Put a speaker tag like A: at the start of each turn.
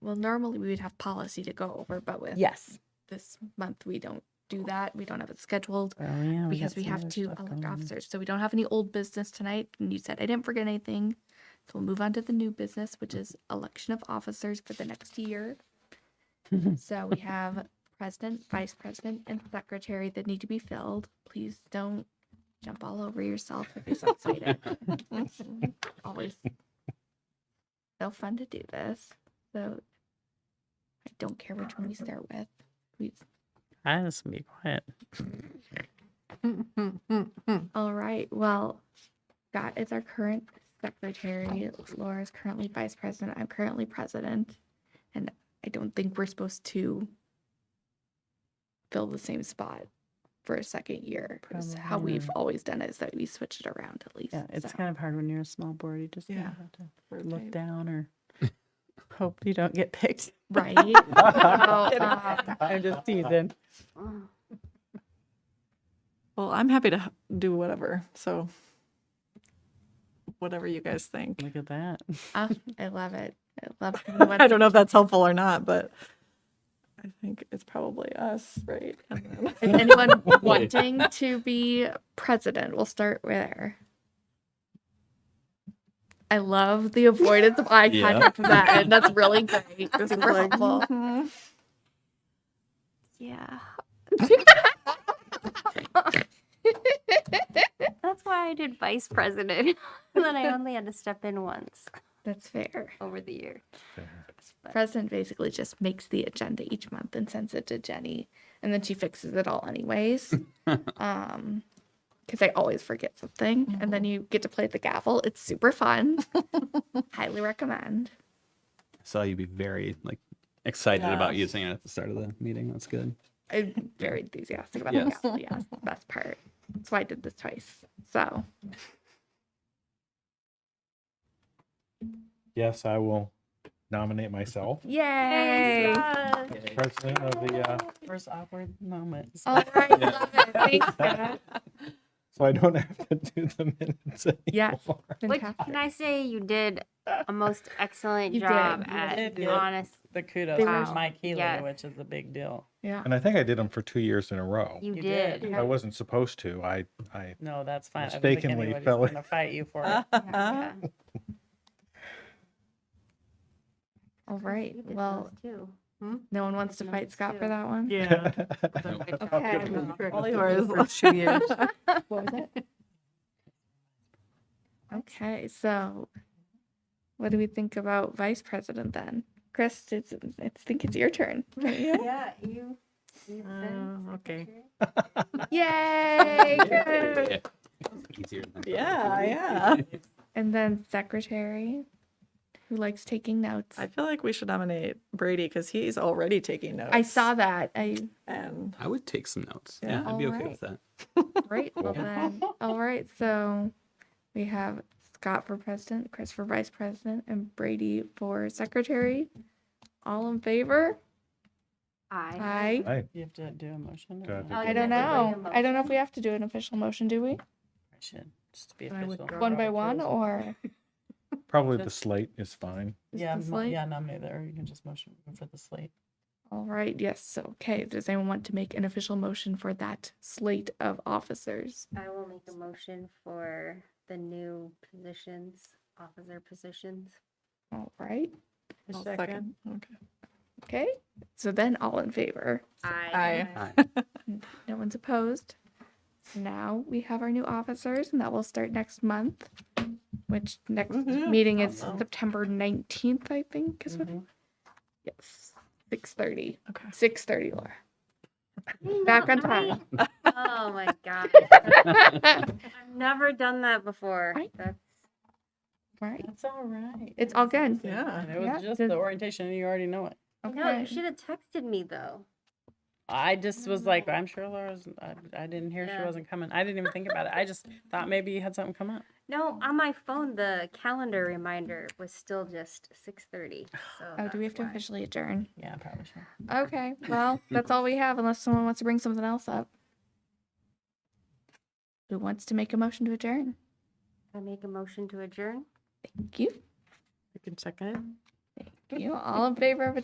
A: well, normally we would have policy to go over, but with
B: Yes.
A: this month, we don't do that. We don't have it scheduled
B: Oh, yeah.
A: because we have two elected officers. So we don't have any old business tonight. And you said I didn't forget anything. So we'll move on to the new business, which is election of officers for the next year. so we have president, vice president, and secretary that need to be filled. Please don't jump all over yourself if you're so excited. Always so fun to do this. So I don't care which one we start with. We
C: I just be quiet.
A: All right. Well, that is our current secretary. Laura is currently vice president. I'm currently president. And I don't think we're supposed to fill the same spot for a second year. It's how
B: Probably
A: we've always done it is that we switch it around at least.
C: Yeah, it's
A: so.
C: kind of hard when you're a small board. You just kinda
D: Yeah,
C: have to look down or hope you don't get picked.
A: right. So, um,
C: I'm just teasing.
D: Well, I'm happy to h- do whatever. So, whatever you guys think.
C: Look at that.
A: uh, I love it. I love
D: I don't know if that's helpful or not, but I think it's probably us, right? And then-
A: Is anyone wanting to be president? We'll start there. I love the avoidance of eye
E: Yeah.
A: contact from that end. That's really great.
D: This is
A: Super
D: like,
A: helpful.
D: mhm.
A: Yeah.
F: That's why I did vice president. and then I only had to step in once
A: That's fair.
F: over the year. But
A: President basically just makes the agenda each month and sends it to Jenny, and then she fixes it all anyways. um, because I always forget something, and then you get to play the gavel. It's super fun. Highly recommend.
E: saw you be very like excited about
D: Yes.
E: using it at the start of the meeting. That's good.
A: I'm very enthusiastic about
E: Yes.
A: the gavel. Yes, the best part. That's why I did this twice. So
G: Yes, I will nominate myself
A: yay!
F: Yes.
G: as president of the, uh,
C: First awkward moment. Oh,
A: All right, love it. Thanks, Scott.
G: so I don't have to do the minutes
A: Yes.
G: anymore.
F: Which
A: Fantastic.
F: can I say you did a most excellent
A: You did.
F: job
A: You
F: at
C: did do it.
F: honest
C: The kudos
A: They
F: were-
C: for Mike Healy,
F: yes.
C: which is a big deal.
A: Yeah.
G: And I think I did them for two years in a row.
F: you,
C: You did.
F: did.
A: Yeah.
G: I wasn't supposed to. I, I,
C: No, that's fine.
G: Mistakenly
C: I don't think
G: fell in.
C: anybody's gonna fight you for it.
A: Uh-huh.
F: Yeah, yeah.
A: All right.
F: You did
A: Well,
F: those too.
A: no one wants to fight Scott for that one.
C: Yeah.
A: Okay.
D: All yours.
A: What was it? Okay, so what do we think about vice president then? Chris, it's, I think it's your turn. don't you?
F: Yeah, you. you've been
C: Uh, okay.
F: secretary.
A: Yay! Chris!
E: Easier than
D: Yeah, yeah.
A: And then secretary, who likes taking notes.
D: I
A: I,
D: feel like we should nominate Brady because he's already taking notes.
A: saw that. I
D: And
E: I would take some notes.
D: Yeah.
E: Yeah, I'd be okay
A: Alright.
E: with that.
A: great. Well then, all right. So we have Scott for president, Chris for vice president, and Brady for secretary. All in favor?
F: I.
A: Aye.
G: I,
C: You have to do a motion. or
G: Do I have
C: no?
G: to
F: Oh,
A: I don't
F: you have to
A: know.
F: bring a
A: I don't know if
F: motion.
A: we have to do an official motion, do we?
C: I should just be official.
A: One by one or
G: probably the slate is fine.
A: is
C: Yeah,
A: this
C: mo-
A: like-
C: yeah, nominate that, or you can just motion for the slate.
A: All right, yes. So, okay, does anyone want to make an official motion for that slate of officers?
F: I will make a motion for the new positions, officer positions.
A: All right.
D: I'll second. Okay.
A: Okay. So then all in favor.
F: I.
A: No one's opposed. Now we have our new officers, and that will start next month. Which next
F: Mm-hmm.
D: Woohoo.
A: meeting is
D: Awesome.
A: September nineteenth, I think. Is what?
F: Mm-hmm.
C: Mm-hmm.
A: Yes, six thirty.
D: Okay.
A: Six thirty, Laura. Back on time.
F: Oh my god. I've never done that before.
A: Right?
F: That's
A: right.
C: That's all right.
A: It's all good.
D: Yeah.
C: It
A: Yeah,
C: was just
A: does-
C: the orientation, and you already know it.
F: I know,
A: Okay.
F: you should have texted me though.
C: I just was like, I'm sure Laura's, I, I didn't hear she
F: Yeah.
C: wasn't coming. I didn't even think about it. I just thought maybe you had something come up.
F: No, on my phone the calendar reminder was still just six thirty. So
A: Oh, do we have
F: that's
A: to
F: why.
A: officially adjourn?
C: Yeah, probably should.
A: Okay. Well, that's all we have, unless someone wants to bring something else up. Who wants to make a motion to adjourn?
F: I make a motion to adjourn?
A: Thank you.
C: You can check it.
A: Thank you. All in favor of